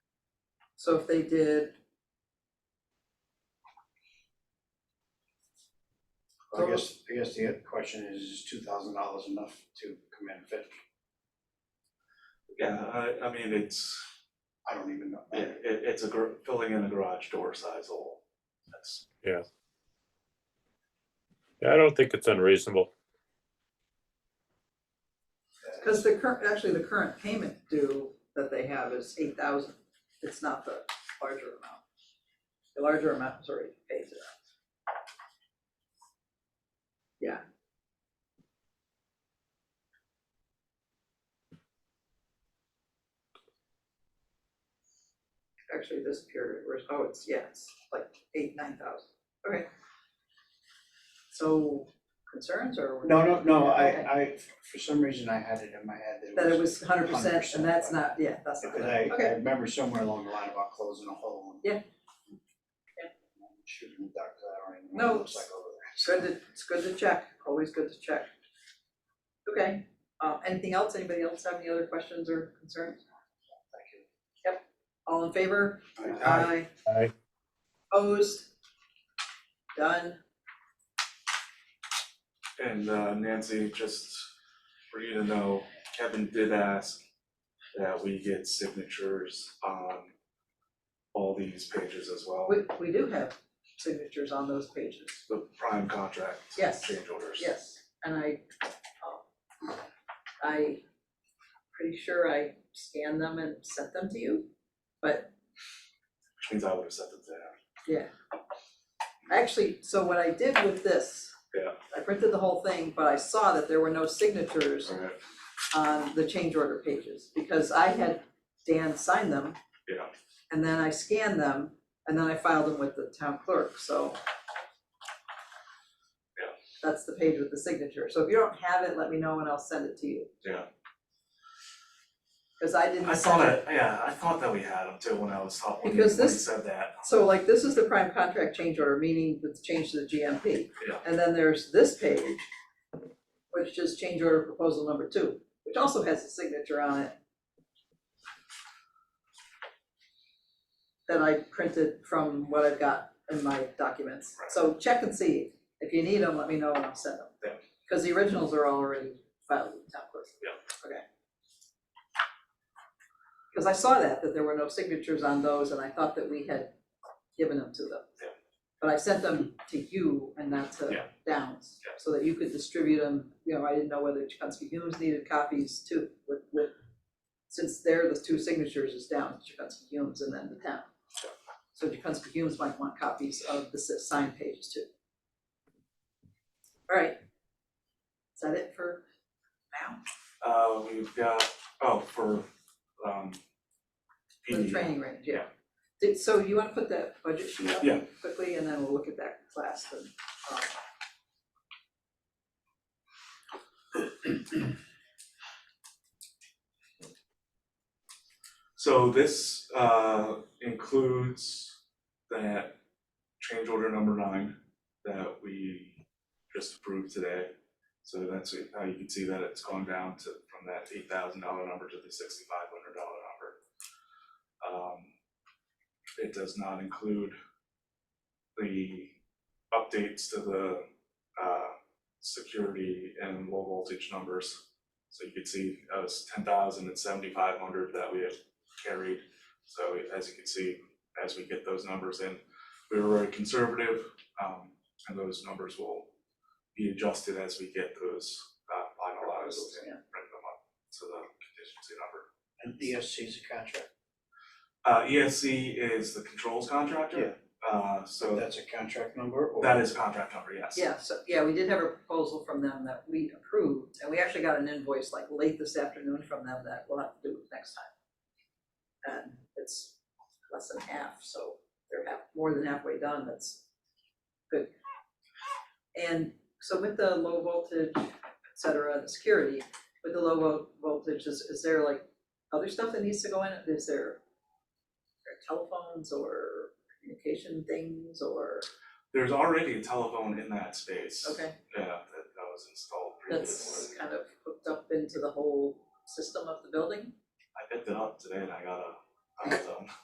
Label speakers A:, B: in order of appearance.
A: So if they did.
B: I guess, I guess the question is, is two thousand dollars enough to come in fit?
C: Yeah, I, I mean, it's,
B: I don't even know.
C: it, it- it's a, gar- filling in a garage door size hole. That's,
D: Yeah, I don't think it's unreasonable.
A: Cause the current, actually, the current payment due that they have is eight thousand, it's not the larger amount. The larger amount is already paid to them. Yeah. Actually, this period, where, oh, it's, yeah, it's like eight, nine thousand, okay. So concerns or?
B: No, no, no, I,
A: Okay.
B: I, for some reason, I had it in my head that
A: That
B: it was.
A: it was hundred percent, and that's
B: 100%.
A: not, yeah, that's not,
B: Because
A: it.
B: I, I
A: okay,
B: remember somewhere along the line about closing a hole. and-
A: Yeah.
B: Shooting a duck, I don't even know what
A: No.
B: it looks like over
A: it's good to, it's good to check, always good to check. Okay, uh, anything else, anybody else have any other questions or concerns?
B: there.
A: All in favor?
B: Thank you.
A: Aye.
D: Aye.
A: Opposed? Done,
C: and uh, Nancy, just for you to know, Kevin did ask that we get signatures on all these pages as well,
A: we, we do have signatures on those pages,
C: the prime contract
A: Yes.
C: change orders.
A: yes, and I, um, I pretty sure I scanned them and sent them to you, but
C: Which means I would have sent it to him.
A: Actually, so what I did with this.
C: Yeah.
A: I printed the whole thing, but I saw that there were no signatures
C: Alright,
A: on the change order pages, because I had Dan sign them.
C: Yeah.
A: And then I scanned them, and then I filed them with the town clerk, so.
C: Yeah.
A: That's the page with the signature, so if you don't have it, let me know and I'll send it to you.
C: Yeah.
A: Cause I didn't.
C: I saw
A: send it.
C: that, yeah, I thought that we had them too when I was talking, when you
A: Because
C: when you
A: this-
C: said that.
A: So like, this is the prime contract change order, meaning the change to the GMP.
C: Yeah.
A: And then there's this page, which is change order proposal number two, which also has a signature on it. That I printed from what I've got in my documents, so check and see, if you need them, let me know and I'll send them.
C: Yeah.
A: Cause the originals are already filed with the town clerk.
C: Yeah.
A: Okay. Cause I saw that, that there were no signatures on those, and I thought that we had given them to them.
C: Yeah.
A: But I sent them to you and not to
C: Yeah.
A: Downs,
C: Yeah.
A: so that you could distribute them, you know, I didn't know whether Chikunsky Humes needed copies too, with, with, since they're the two signatures is Downs, Chikunsky Humes and then the town. So Chikunsky Humes might want copies of the s- signed pages too. All right. Is that it for now?
C: Uh, we've got, oh, for, um,
A: For the
C: PD.
A: training range, yeah.
C: Yeah.
A: Did, so you wanna put that budget sheet up
C: Yeah.
A: quickly, and then we'll look at that class and, um.
C: So this uh includes that change order number nine that we just approved today. So that's it- how you can see that it's gone down to from that eight thousand dollar number to the sixty five hundred dollar number. Um it does not include the updates to the uh security and low voltage numbers. So you can see uh, it was ten thousand and seventy-five hundred that we had carried. So as you can see, as we get those numbers in, we were very conservative, um, and those numbers will be adjusted as we get those, uh, finalized and bring them up to the
B: And ESC
C: contingency number.
B: is a contract,
C: Uh, ESC is the controls contractor. Uh,
B: so
C: so
B: that's a contract number or?
C: that is contract number, yes.
A: Yeah, so, yeah, we did have a proposal from them that we approved, and we actually got an invoice like late this afternoon from them that we'll have to do next time. And it's less than half, so they're half, more than halfway done, that's good. And so with the low voltage, et cetera, the security, with the low vol- voltage, is, is there like other stuff that needs to go in? Is there there are telephones or communication things or,
C: There's already a telephone in that space.
A: okay?
C: Yeah, that, that was installed
A: that's
C: previously.
A: kind of hooked up into the whole system of the building.
C: I picked it up today and I got a, I got